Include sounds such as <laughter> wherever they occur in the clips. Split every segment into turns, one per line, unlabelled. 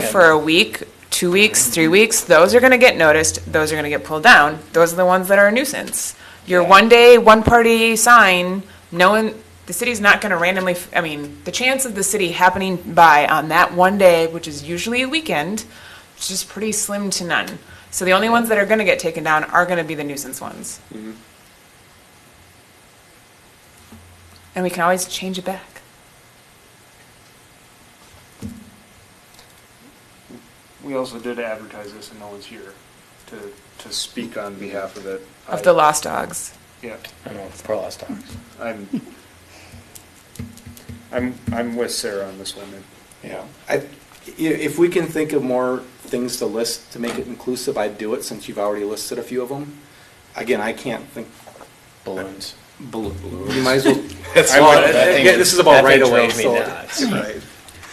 for a week, two weeks, three weeks, those are gonna get noticed, those are gonna get pulled down. Those are the ones that are a nuisance. Your
Yeah.
one-day, one-party sign, no one, the city's not gonna randomly, f- I mean, the chance of the city happening by on that one day, which is usually a weekend, is just pretty slim to none. So the only ones that are gonna get taken down are gonna be the nuisance ones. And we can always change it back.
We also did advertise this and no one's here to, to speak on behalf of it.
Of the lost dogs.
Yeah,
I know, for lost dogs.
I'm, I'm, I'm with Sarah on this one.
Yeah, I, i- if we can think of more things to list to make it inclusive, I'd do it since you've already listed a few of them. Again, I can't think,
Balloons.
bl- you might as well.
That's
I
why- <laughs>
would-
that thing-
yeah, This is about
that thing
right away,
drove me
so.
nuts.
Right.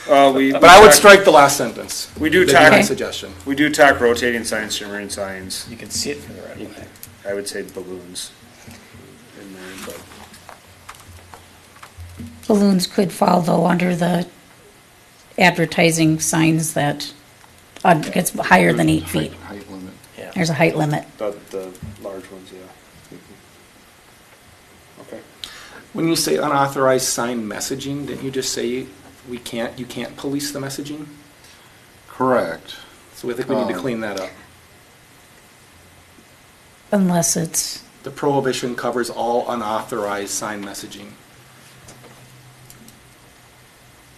Uh, we.
But I would strike the last sentence.
We do
That'd be My
tackle-
suggestion.
We do talk rotating signs, shimmering signs.
You can see it from the right away.
I would say balloons. in there, but-
Balloons could fall though under the advertising signs that uh, gets higher than eight feet.
Height limit.
Yeah.
There's a height limit.
But the large ones, yeah. Okay.
When you say unauthorized sign messaging, didn't you just say we can't, you can't police the messaging?
Correct.
So I think we need to
Um,
clean that up.
Unless it's,
The prohibition covers all unauthorized sign messaging.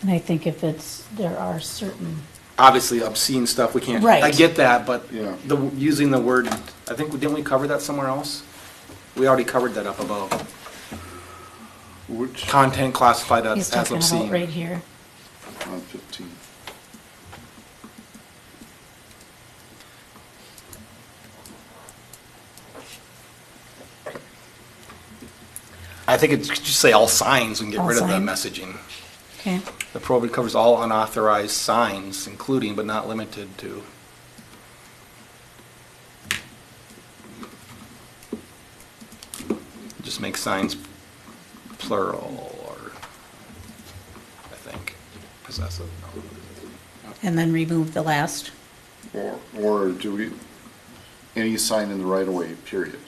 and I think if it's, there are certain,
obviously obscene stuff, we can't.
Right.
I get that, but
Yeah.
the, using the word, I think, didn't we cover that somewhere else? We already covered that up above.
Which,
Content classified
he's
as as
talking about right
obscene.
here.
on fifteen.
I think it should just say all signs and get
All
rid of the
sign.
messaging.
Okay,
The prohibition covers all unauthorized signs, including but not limited to. Just make signs plural or, I think, possessive.
and then remove the last.
Or, or do we, any sign in the right of way, period.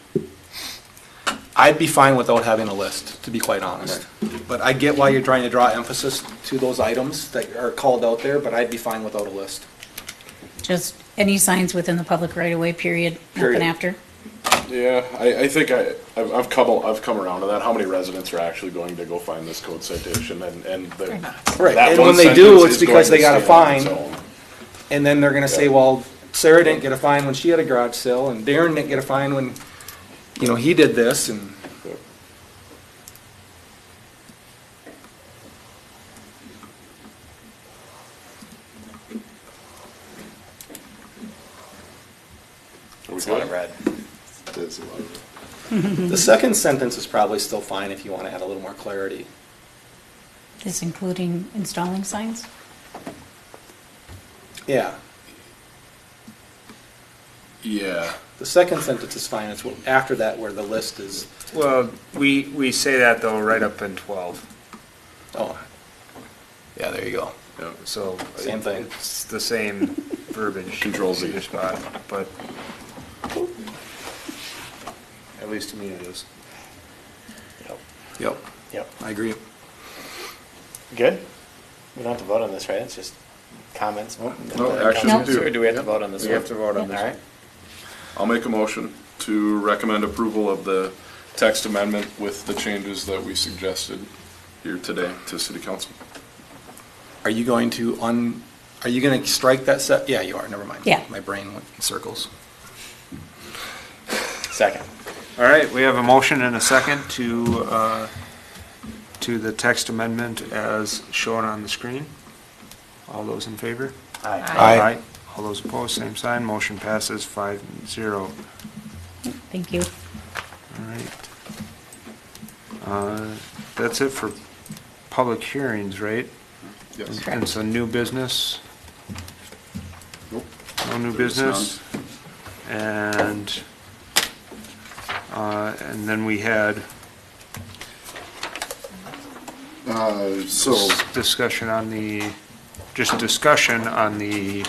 I'd be fine without having a list, to be quite honest. But I get why you're trying to draw emphasis to those items that are called out there, but I'd be fine without a list.
Just any signs within the public right of way, period,
Period.
nothing after.
Yeah, I, I think I, I've, I've come, I've come around to that. How many residents are actually going to go find this code citation and, and the.
Right,
that
and
one
when they
sentence
do,
is
it's because
going to
they got a
stand on
fine.
its own.
And then they're gonna say, well, Sarah didn't get a fine when she had a garage sale, and Darren didn't get a fine when, you know, he did this, and
Are we
That's what I
good?
read.
That's a lot of-
the second sentence is probably still fine if you wanna add a little more clarity.
This including installing signs?
Yeah,
Yeah.
the second sentence is fine, it's what- after that where the list is,
Well, we, we say that though right up in twelve,
oh. Yeah, there you go.
so.
Same thing.
It's the same verbiage.
Control Z.
Either spot, but. At least to me it is.
Yep.
Yep,
Yep.
I agree.
Good? We don't have to vote on this, right? It's just comments?
no, actually,
we
Comments,
do.
Or do we have to
Yep.
vote on this
We
one?
have to vote on this
All right.
I'll make a motion to recommend approval of the text amendment with the changes that we suggested here today to city council.
Are you going to un, are you gonna strike that set, yeah, you are, never mind.
Yeah.
My brain went in circles.
Second.
All right, we have a motion and a second to, uh, to the text amendment as shown on the screen. All those in favor?
Aye.
Aye.
All those opposed, same sign, motion passes five zero.
Thank you.
All right. Uh, That's it for public hearings, right?
Yes.
And so new business?
Nope.
No new
There's
business? And, uh, and then we had
Uh, so. Uh,
discussion on the, just discussion on the